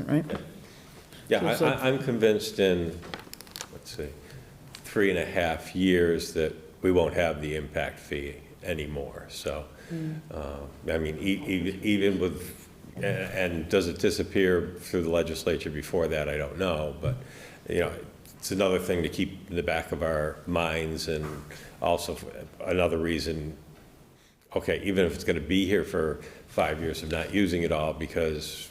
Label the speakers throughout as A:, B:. A: right?
B: Yeah, I-
A: So-
B: I, I'm convinced in, let's see, three and a half years that we won't have the impact fee anymore, so. uh, I mean, e- e- even with, a- and does it disappear through the legislature before that, I don't know, but, you know, it's another thing to keep in the back of our minds and also another reason okay, even if it's going to be here for five years of not using it all, because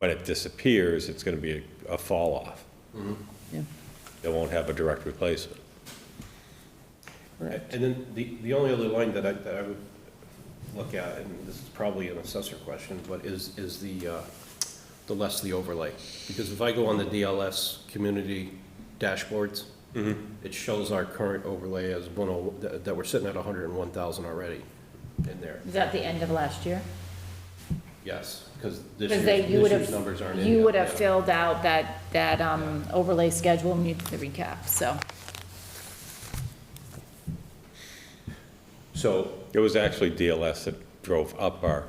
B: when it disappears, it's going to be a fall off.
A: Yeah.
B: It won't have a direct replacement.
C: And then the, the only other line that I, that I would look at, and this is probably an assessor question, but is, is the, uh, the less the overlay. Because if I go on the DLS community dashboards, it shows our current overlay as one oh, that, that we're sitting at hundred and one thousand already in there.
D: Is that the end of last year?
C: Yes, because this
D: Because
C: year's,
D: they,
C: this
D: you would
C: year's numbers aren't
D: have,
C: in
D: you
C: yet,
D: would have
C: yeah.
D: filled out that, that um, overlay schedule and you did the recap, so.
C: So,
B: It was actually DLS that drove up our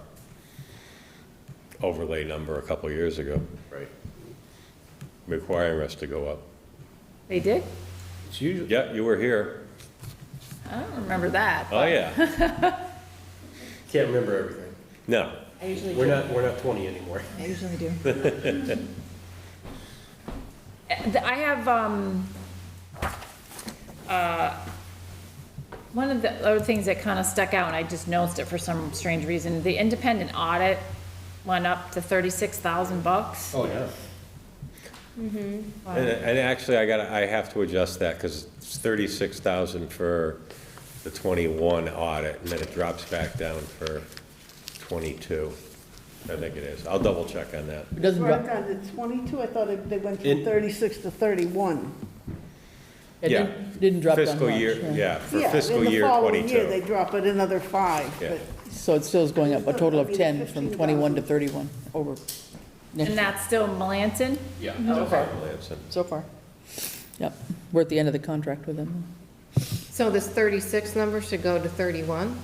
B: overlay number a couple of years ago,
C: right,
B: requiring us to go up.
D: They did?
C: it's usually,
B: Yeah, you were here.
D: I don't remember that.
B: Oh, yeah.
C: can't remember everything.
B: No,
D: I usually
C: We're
D: do.
C: not, we're not twenty anymore.
D: I usually do. eh, I have, um, uh, one of the other things that kind of stuck out, and I just noticed it for some strange reason, the independent audit went up to thirty-six thousand bucks.
C: Oh, yeah.
B: And, and actually, I gotta, I have to adjust that, because it's thirty-six thousand for the twenty-one audit, and then it drops back down for twenty-two, I think it is. I'll double check on that.
A: It doesn't,
E: Right,
A: go-
E: on the 22, I thought it- they went from
C: In-
E: 36 to 31.
A: it
B: Yeah.
A: didn't- didn't drop down much.
B: Fiscal year, yeah, for
E: Yeah,
B: fiscal year
E: In the following year, they
B: twenty-two.
E: drop it another five,
B: Yeah.
E: but
A: So it still is going up, a total
E: I
A: of
E: mean,
A: 10, from 21 to 31,
E: 15,000.
A: over
D: And
A: next,
D: that's still Melanson?
C: Yeah.
D: Okay.
B: Lanson.
A: so far. Yep, we're at the end of the contract with them.
D: Mm-hmm.
F: So this 36 number should go to 31?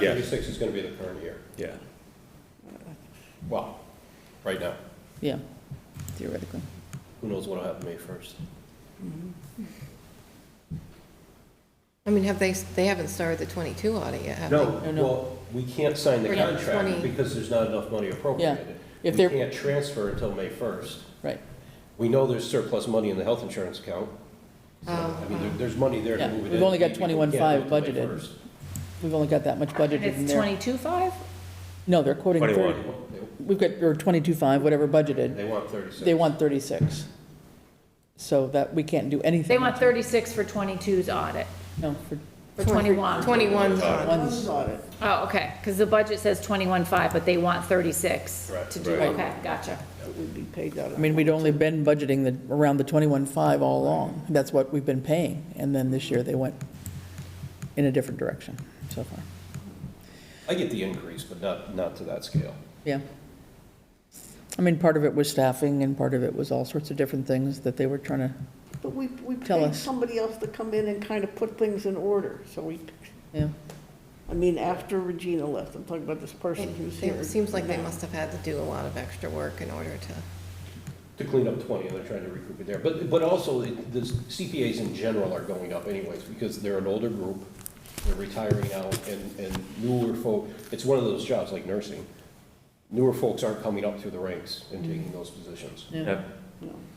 B: Yeah.
C: thirty-six is gonna be the current year.
B: Yeah,
C: Well, right now,
A: Yeah, theoretically.
C: who knows what'll happen May first?
F: I mean, have they, they haven't started the 22 audit yet, have they?
A: No, no.
C: Well, we can't sign the
F: Or not
C: contract
F: 20.
C: because there's not enough money appropriated.
A: if
C: We
A: they're-
C: can't transfer until May first.
A: Right,
C: We know there's surplus money in the health insurance account. So, I mean, there- there's money there to
A: Oh, Yeah,
C: move it in.
A: we've only got
C: We can't
A: 21.5
C: do it till May
A: budgeted.
C: 1st.
A: we've only got that much
D: And
A: budgeted in
D: it's
A: there.
D: twenty-two-five?
A: No, they're quoting 30.
B: twenty-one.
A: We've got, or 22.5, whatever budgeted,
C: They want thirty-six.
A: they want 36. So that, we can't do anything.
D: They want thirty-six for 22's audit,
A: No, for
D: for twenty-one.
F: 21's on.
A: ones,
E: about it.
D: Oh, okay, because the budget says twenty-one-five, but they want thirty-six
C: Correct,
D: to do,
C: right.
D: okay, gotcha.
E: It would be paid out
A: I
E: of.
A: mean, we'd only been budgeting the, around the 21.5 all along. That's what we've been paying. And then this year, they went in a different direction so far.
C: I get the increase, but not, not to that scale.
A: Yeah. I mean, part of it was staffing and part of it was all sorts of different things that they were trying to,
E: But we, we
A: Tell
E: paid
A: us.
E: somebody else to come in and kind of put things in order, so we,
A: yeah.
E: I mean, after Regina left, I'm talking about this person who's
F: It
E: here.
F: it seems like they must have had to do a lot of extra work in order to,
C: to clean up 20, and they're trying to recoup it there. But, but also, it- the CPAs in general are going up anyways, because they're an older group, they're retiring now, and, and newer folk, it's one of those jobs like nursing. Newer folks aren't coming up through the ranks and taking those positions.
B: Yeah.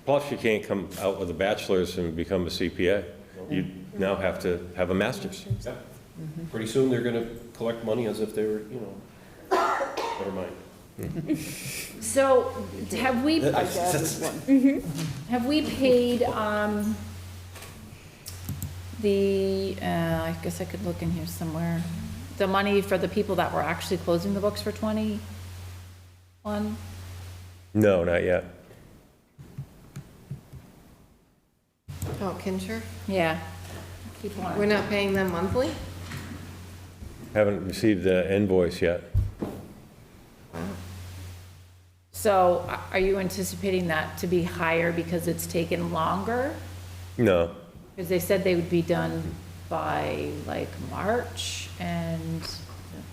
B: Plus, you can't come out with a bachelor's and become a CPA. You now have to have a master's.
C: Yeah. Pretty soon, they're gonna collect money as if they were, you know, never mind.
D: So have we,
E: My dad was one.
D: have we paid, um, the, uh, I guess I could look in here somewhere, the money for the people that were actually closing the books for twenty-one?
B: No, not yet.
F: oh, Kincher?
D: Yeah. Keep wanting
F: We're not paying them monthly?
B: Haven't received the invoice yet.
D: So a- are you anticipating that to be higher because it's taken longer?
B: No.
D: Because they said they would be done by like March and,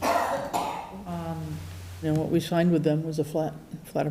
D: um,
A: And what we signed with them was a flat, flat